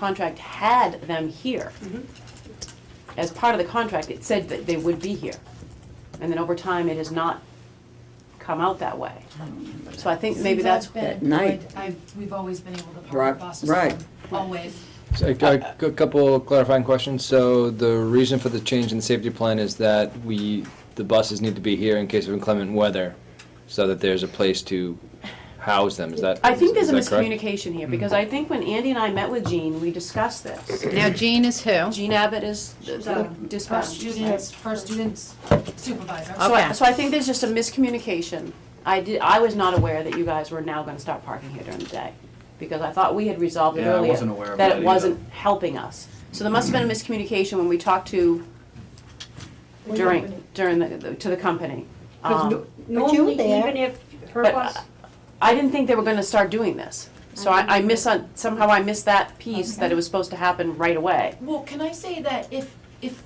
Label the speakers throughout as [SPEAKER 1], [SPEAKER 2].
[SPEAKER 1] contract had them here. As part of the contract, it said that they would be here. And then over time, it has not come out that way. So I think maybe that's,
[SPEAKER 2] Since I've
[SPEAKER 3] At
[SPEAKER 2] been,
[SPEAKER 3] night.
[SPEAKER 2] I- I've, we've always been able to park
[SPEAKER 3] Right,
[SPEAKER 2] at Boston
[SPEAKER 3] right.
[SPEAKER 2] always.
[SPEAKER 4] So, I- I- A couple clarifying questions. So the reason for the change in the safety plan is that we, the buses need to be here in case of inclement weather, so that there's a place to house them. Is that?
[SPEAKER 1] I think there's
[SPEAKER 4] is
[SPEAKER 1] a
[SPEAKER 4] that correct? Mm.
[SPEAKER 1] miscommunication here, because I think when Andy and I met with Jean, we discussed this.
[SPEAKER 5] Now Jean is who?
[SPEAKER 1] Jean Abbott is the- the
[SPEAKER 2] First
[SPEAKER 1] dispatch.
[SPEAKER 2] students, first students supervisor.
[SPEAKER 1] So I,
[SPEAKER 5] Okay.
[SPEAKER 1] so I think there's just a miscommunication. I did, I was not aware that you guys were now gonna start parking here during the day, because I thought we had resolved it
[SPEAKER 6] Yeah, I
[SPEAKER 1] earlier.
[SPEAKER 6] wasn't aware of that
[SPEAKER 1] it
[SPEAKER 6] either.
[SPEAKER 1] wasn't helping us. So there must have been a miscommunication when we talked to, during, during the- the, to the company. Um,
[SPEAKER 7] But you even if her
[SPEAKER 1] But
[SPEAKER 7] bus,
[SPEAKER 1] I didn't think they were gonna start doing this. So I, I miss, somehow I missed that piece, that it was supposed to happen right away.
[SPEAKER 2] Well, can I say that if, if,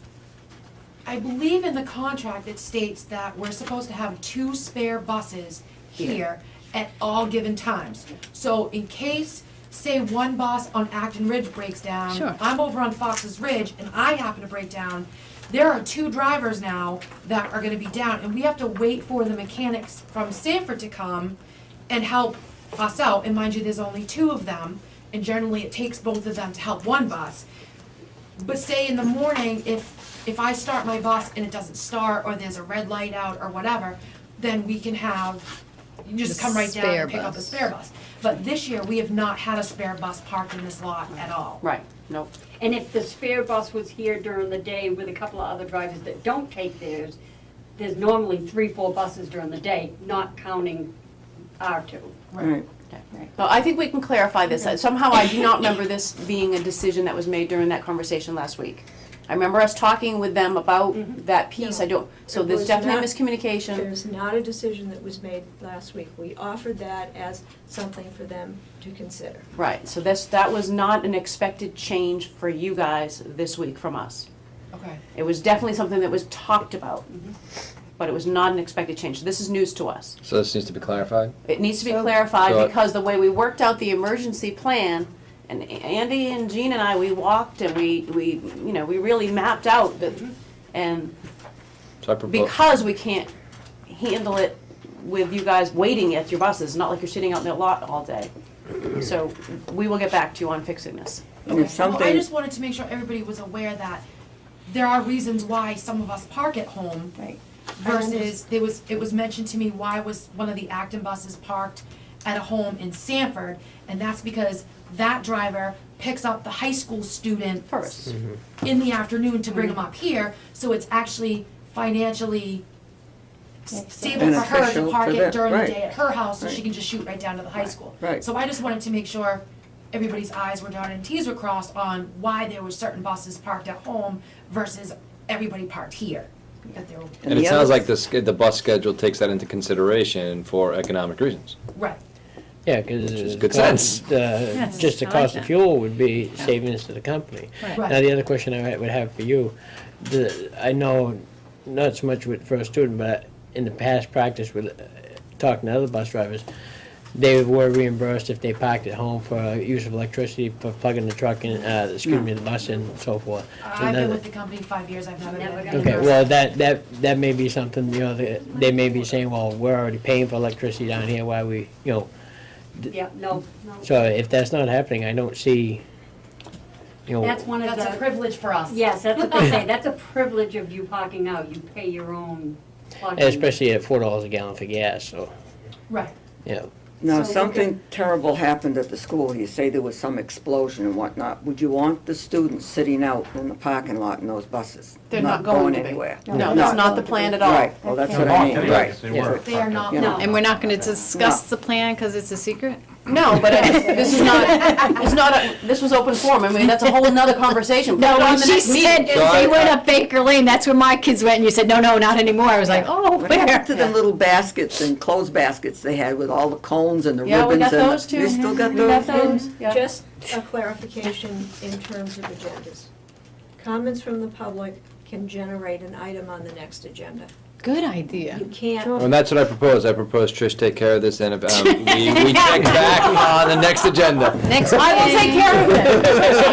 [SPEAKER 2] I believe in the contract, it states that we're supposed to have two spare buses here at all given times. So in case, say, one bus on Acton Ridge breaks down.
[SPEAKER 5] Sure.
[SPEAKER 2] I'm over on Fox's Ridge and I happen to break down, there are two drivers now that are gonna be down and we have to wait for the mechanics from Sanford to come and help us out. And mind you, there's only two of them and generally it takes both of them to help one bus. But say in the morning, if, if I start my bus and it doesn't start, or there's a red light out or whatever, then we can have, you just
[SPEAKER 5] The
[SPEAKER 2] come right down
[SPEAKER 5] spare
[SPEAKER 2] and pick up the
[SPEAKER 5] bus.
[SPEAKER 2] spare bus. But this year, we have not had a spare bus parked in this lot at all.
[SPEAKER 1] Right, nope.
[SPEAKER 7] and if the spare bus was here during the day with a couple of other drivers that don't take theirs, there's normally three, four buses during the day, not counting our two.
[SPEAKER 3] Right.
[SPEAKER 1] Well, I think we can clarify this. Somehow I do not remember this being a decision that was made during that conversation last week. I remember us talking with them about that piece. I don't, so
[SPEAKER 8] Mm-hmm. It
[SPEAKER 1] there's
[SPEAKER 8] was
[SPEAKER 1] definitely
[SPEAKER 8] not-
[SPEAKER 1] miscommunication.
[SPEAKER 8] There's not a decision that was made last week. We offered that as something for them to consider.
[SPEAKER 1] Right, so this, that was not an expected change for you guys this week from us.
[SPEAKER 2] Okay.
[SPEAKER 1] It was definitely something that was talked about,
[SPEAKER 8] Mm-hmm.
[SPEAKER 1] but it was not an expected change. This is news to us.
[SPEAKER 4] So this needs to be clarified?
[SPEAKER 1] It needs to be
[SPEAKER 8] So-
[SPEAKER 1] clarified
[SPEAKER 4] So-
[SPEAKER 1] because the way we worked out the emergency plan, and Andy and Jean and I, we walked and we, we, you know, we really mapped out the, and
[SPEAKER 4] So I propose.
[SPEAKER 1] because we can't handle it with you guys waiting at your buses, not like you're sitting out in the lot all day. So we will get back to you on fixing this.
[SPEAKER 3] And if
[SPEAKER 2] Okay. Well, I
[SPEAKER 3] something-
[SPEAKER 2] just wanted to make sure everybody was aware that there are reasons why some of us park at home
[SPEAKER 8] Right.
[SPEAKER 2] versus, there was, it was mentioned to me, why was one of the Acton buses parked at a home in Sanford? And that's because that driver picks up the high school student
[SPEAKER 1] First.
[SPEAKER 5] Mm-hmm.
[SPEAKER 2] in the afternoon to bring them up here, so it's actually financially s- stable for her
[SPEAKER 3] Beneficial
[SPEAKER 2] to
[SPEAKER 3] for
[SPEAKER 2] park it
[SPEAKER 3] them,
[SPEAKER 2] during the
[SPEAKER 3] right.
[SPEAKER 2] day at her house, so she
[SPEAKER 3] Right.
[SPEAKER 2] can just shoot right down to the high school.
[SPEAKER 3] right.
[SPEAKER 2] So I just wanted to make sure everybody's i's were dotted and t's were crossed on why there were certain buses parked at home versus everybody parked here, that they were,
[SPEAKER 4] And
[SPEAKER 3] the
[SPEAKER 4] it sounds
[SPEAKER 3] other-
[SPEAKER 4] like the, sch- the bus schedule takes that into consideration for economic reasons.
[SPEAKER 2] right.
[SPEAKER 9] Yeah, because.
[SPEAKER 4] is good sense.
[SPEAKER 9] Just the
[SPEAKER 5] I like
[SPEAKER 9] cost of
[SPEAKER 5] that.
[SPEAKER 9] fuel would be savings to the company.
[SPEAKER 5] Right.
[SPEAKER 2] Right.
[SPEAKER 9] Now, the other question I ha- would have for you, the, I know, not so much with, for a student, but in the past practice with, uh, talking to other bus drivers, they were reimbursed if they parked at home for uh, use of electricity, for plugging the truck in, uh, excuse me, the bus in and so forth.
[SPEAKER 2] I've
[SPEAKER 9] Another-
[SPEAKER 2] been with the company five years, I've never
[SPEAKER 7] Never
[SPEAKER 2] been.
[SPEAKER 7] got
[SPEAKER 9] Okay,
[SPEAKER 7] reimbursed.
[SPEAKER 9] well, that, that, that may be something, you know, that- they may be saying, well, we're already paying for electricity down here, why we, you know,
[SPEAKER 7] Yeah, no, no.
[SPEAKER 9] so if that's not happening, I don't see, you know.
[SPEAKER 7] That's one of
[SPEAKER 2] That's a
[SPEAKER 7] the,
[SPEAKER 2] privilege for us.
[SPEAKER 7] yes, that's what they say, that's a privilege of you parking out, you pay your own parking.
[SPEAKER 9] Especially at four dollars a gallon for gas, so,
[SPEAKER 2] Right,
[SPEAKER 9] you know,
[SPEAKER 3] Now,
[SPEAKER 7] So
[SPEAKER 3] if
[SPEAKER 7] we
[SPEAKER 3] something terrible happened at the school, you say there was some explosion and whatnot, would you want the students sitting out in the parking lot in those buses?
[SPEAKER 1] They're not going to be.
[SPEAKER 3] anywhere?
[SPEAKER 1] No, that's not the plan at all.
[SPEAKER 3] Right, well, that's what I
[SPEAKER 6] Not
[SPEAKER 3] mean,
[SPEAKER 6] anyway,
[SPEAKER 3] right.
[SPEAKER 6] if they
[SPEAKER 9] Yeah.
[SPEAKER 6] were
[SPEAKER 2] they are
[SPEAKER 6] parked
[SPEAKER 2] not,
[SPEAKER 3] Yeah.
[SPEAKER 2] no.
[SPEAKER 5] And we're not gonna discuss the plan because it's a secret?
[SPEAKER 1] No, but it- this is not, it's not, a- this was open forum, I mean, that's a whole nother conversation. Put
[SPEAKER 5] No,
[SPEAKER 1] it on
[SPEAKER 5] when
[SPEAKER 1] the
[SPEAKER 5] she
[SPEAKER 1] next meeting.
[SPEAKER 5] said
[SPEAKER 4] So I-
[SPEAKER 5] they went up Baker Lane, that's where my kids went, and you said, no, no, not anymore. I was like, oh,
[SPEAKER 3] What happened to
[SPEAKER 5] where?
[SPEAKER 3] the little baskets and clothes baskets they had with all the cones and the ribbons?
[SPEAKER 1] Yeah, we got
[SPEAKER 3] and the-
[SPEAKER 1] those too.
[SPEAKER 3] You still got
[SPEAKER 1] We
[SPEAKER 3] those?
[SPEAKER 1] yeah.
[SPEAKER 8] Just a clarification in terms of agendas. Comments from the public can generate an item on the next agenda.
[SPEAKER 5] Good
[SPEAKER 8] You
[SPEAKER 5] idea.
[SPEAKER 8] can't,
[SPEAKER 4] And that's what I propose. I propose Trish take care of this and if, um, we, we check back on the next agenda.
[SPEAKER 5] Next
[SPEAKER 1] I will take care of it.